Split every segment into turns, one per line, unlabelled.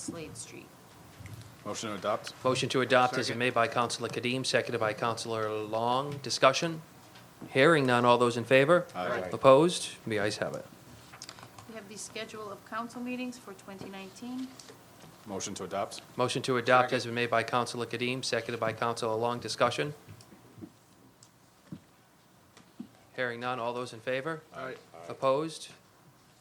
Slade Street.
Motion to adopt?
Motion to adopt is made by Counselor Kadim, seconded by Counselor Long. Discussion? Hearing none. All those in favor?
Aye.
Opposed? The ayes have it.
We have the schedule of council meetings for 2019.
Motion to adopt?
Motion to adopt has been made by Counselor Kadim, seconded by Counselor Long. Discussion? Hearing none. All those in favor?
Aye.
Opposed?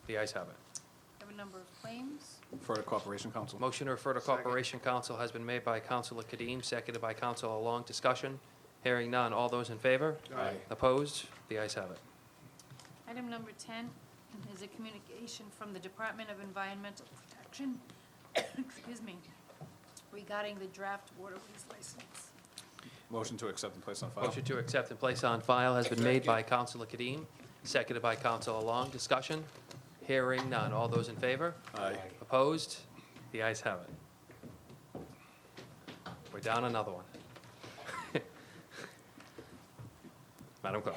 The ayes have it.
We have a number of claims.
Refer to Corporation Council?
Motion to refer to Corporation Council has been made by Counselor Kadim, seconded by Counselor Long. Discussion? Hearing none. All those in favor?
Aye.
Opposed? The ayes have it.
Item number 10 is a communication from the Department of Environmental Protection, excuse me, regarding the draft waterways license.
Motion to accept and place on file?
Motion to accept and place on file has been made by Counselor Kadim, seconded by Counselor Long. Discussion? Hearing none. All those in favor?
Aye.
Opposed? The ayes have it. We're down another one. Madam Clerk.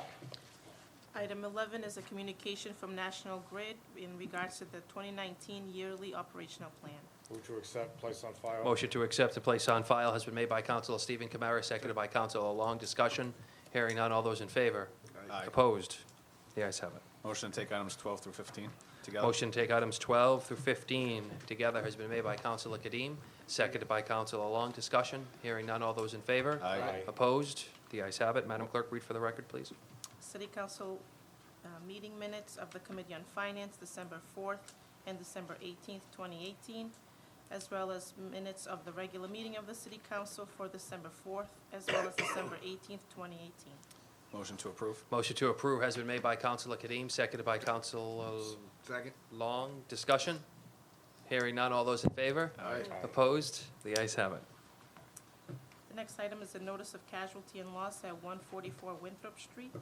Item 11 is a communication from National Grid in regards to the 2019 yearly operational plan.
Move to accept, place on file.
Motion to accept and place on file has been made by Counselor Stephen Kamara, seconded by Counselor Long. Discussion? Hearing none. All those in favor?
Aye.
Opposed? The ayes have it.
Motion to take items 12 through 15 together?
Motion to take items 12 through 15 together has been made by Counselor Kadim, seconded by Counselor Long. Discussion, hearing none. All those in favor?
Aye.
Aye.
Opposed? The ayes have it. Madam Clerk, read for the record, please.
City Council uh, meeting minutes of the Committee on Finance, December 4th and December 18th, 2018, as well as minutes of the regular meeting of the City Council for December 4th, as well as December 18th, 2018.
Motion to approve?
Motion to approve has been made by Counselor Kadim, seconded by Counselor
Second.
Long. Discussion, hearing none. All those in favor?
Aye.
Opposed? The ayes have it.
The next item is a notice of casualty and loss at 144 Winthrop Street.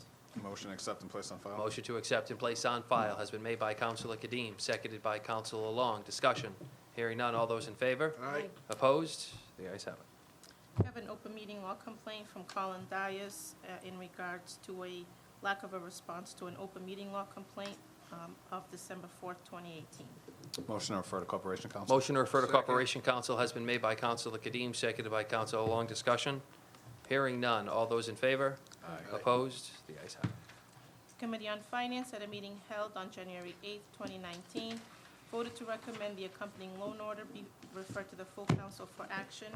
Motion to accept and place on file?
Motion to accept and place on file has been made by Counselor Kadim, seconded by Counselor Long. Discussion, hearing none. All those in favor?
Aye.
Opposed? The ayes have it.
We have an open meeting law complaint from Colin Dias uh, in regards to a lack of a response to an open meeting law complaint um, of December 4th, 2018.
Motion to refer to Corporation Council?
Motion to refer to Corporation Council has been made by Counselor Kadim, seconded by Counselor Long. Discussion? Hearing none. All those in favor?
Aye.
Opposed? The ayes have it.
Committee on Finance, at a meeting held on January 8th, 2019, voted to recommend the accompanying loan order be referred to the full council for action.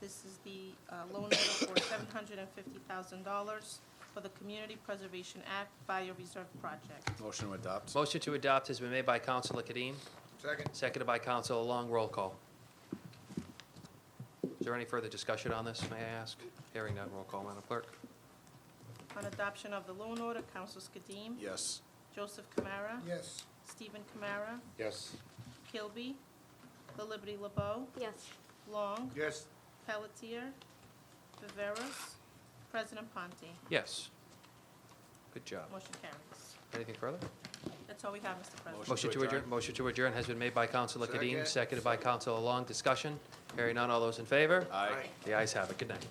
This is the uh, loan order for $750,000 for the Community Preservation Act Bio Reserve Project.
Motion to adopt?
Motion to adopt has been made by Counselor Kadim,
Second.
seconded by Counselor Long. Roll call. Is there any further discussion on this, may I ask? Hearing none. Roll call, Madam Clerk.
On adoption of the loan order, Councilors Kadim.
Yes.
Joseph Kamara.
Yes.
Stephen Kamara.
Yes.
Kilby. The Liberty LeBeau.
Yes.
Long.
Yes.
Pelletier. Viveras. President Ponte.
Yes. Good job.
Motion carries.
Anything further?
That's all we have, Mr. President.
Motion
Motion
to
to adjourn,
adjourn.
motion to adjourn has been made by Counselor Kadim,
Second.
seconded by Counselor Long. Discussion? Hearing none. All those in favor?
Aye.
The ayes have it. Good night.